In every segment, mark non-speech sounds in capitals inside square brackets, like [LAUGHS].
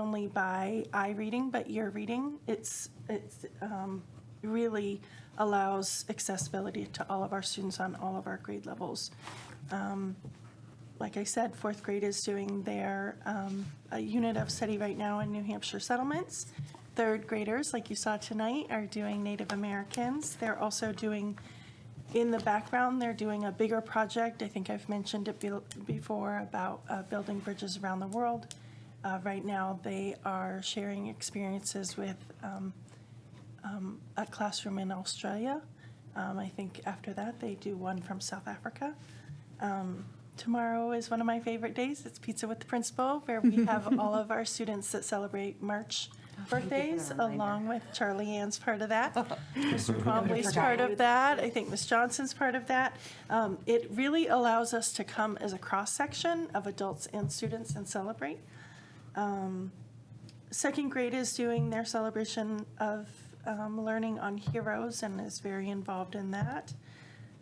only by eye reading, but ear reading. It's, it's um, really allows accessibility to all of our students on all of our grade levels. Um, Like I said, fourth grade is doing their, um, a unit of study right now in New Hampshire settlements. Third graders, like you saw tonight, are doing Native Americans. They're also doing in the background, they're doing a bigger project. I think I've mentioned it be- before about uh, building bridges around the world. Uh, Right now, they are sharing experiences with um, um, a classroom in Australia. Um, I think after that, they do one from South Africa. Um, Tomorrow is one of my favorite days. It's Pizza with the Principal, where we [LAUGHS] have all of our students that celebrate March Oh, thank you for the birthdays, reminder. along with Charlie Ann's part of [LAUGHS] that. Mr. Twombly's part of that. I think Ms. Johnson's part of that. Um, It really allows us to come as a cross-section of adults and students and celebrate. Um, Second grade is doing their celebration of um, learning on heroes and is very involved in that.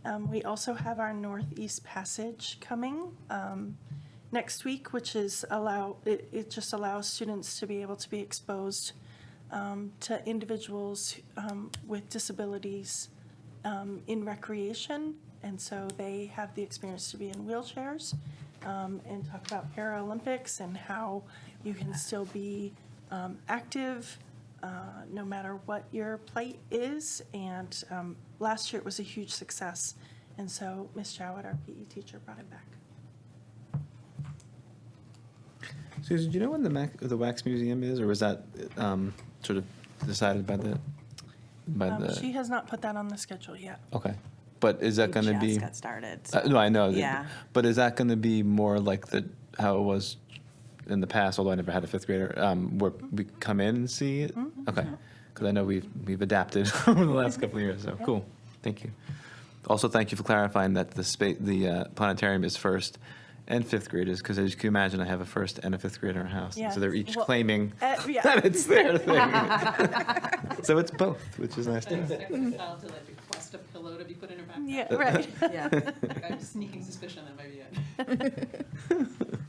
Um, We also have our Northeast Passage coming um, next week, which is allow, it, it just allows students to be able to be exposed um, to individuals um, with disabilities um, in recreation. And so they have the experience to be in wheelchairs um, and talk about Paralympics and how you can still be um, active uh, no matter what your plight is. And um, last year it was a huge success. And so Ms. Jowett, our PE teacher, brought it back. Susan, do you know when the Mac, the Wax Museum is, or was that um, sort of decided by the by Um, the? She has not put that on the schedule yet. okay, but is that We going to just be? got started. Uh, no, I know. that- Yeah. But is that going to be more like the how it was in the past? Although I never had a fifth grader, um, where we come in and see it. Mm-hmm. Okay, because I know we've we've adapted [LAUGHS] over the last couple of years. So cool. Thank you. Also, thank you for clarifying that the spa- the uh, planetarium is first and fifth graders, because as you can imagine, I have a first and a fifth grader in our house, and so they're Yes. each Well, claiming uh, yeah. [LAUGHS] that it's their thing. [LAUGHS] so it's both, which is nice. Expect Too. a child to like request a pillow to be put in her backpack. mm-hmm. Yeah, right. [LAUGHS] Yeah. Like, I have sneaking suspicion that might be it. [LAUGHS]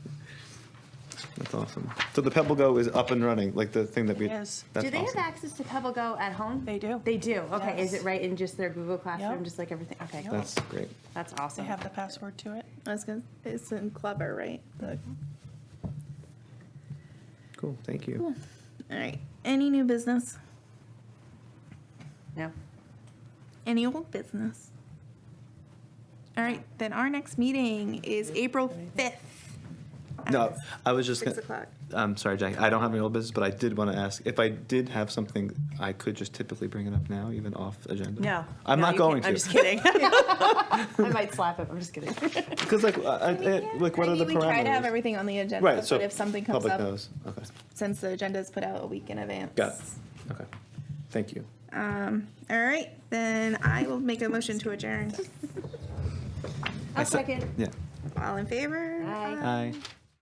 That's awesome. So the Pebble Go is up and running, like the thing that we. Yes. that's do they awesome. have access to Pebble Go at home? They do. They do. Okay. Is Yes. it right in just their Google Classroom, Yep. just like everything? Okay. Yep. Cool. That's great. That's They awesome. have the password to it. I was gonna, it's in Clever, right? The- Cool. Thank you. All right. Any new business? No. Any old business? All right. Then our next meeting is April fifth. No, I was just. Six gonna- o'clock. I'm sorry, Jack. I don't have any old business, but I did want to ask if I did have something. I could just typically bring it up now, even off agenda. No. I'm No, not you going can't. I'm to. just [LAUGHS] kidding. I might slap him. I'm just kidding. Because like, I, I, like, what I are the mean, We try to have parameters? everything on the agenda, Right. So but if something comes public up, knows. Okay. since the agenda is put out a week in advance. Got it. Okay. Thank you. Um. All right. Then I will make a motion to adjourn. I I'll se- second. Yeah. All in favor? Aye. Aye.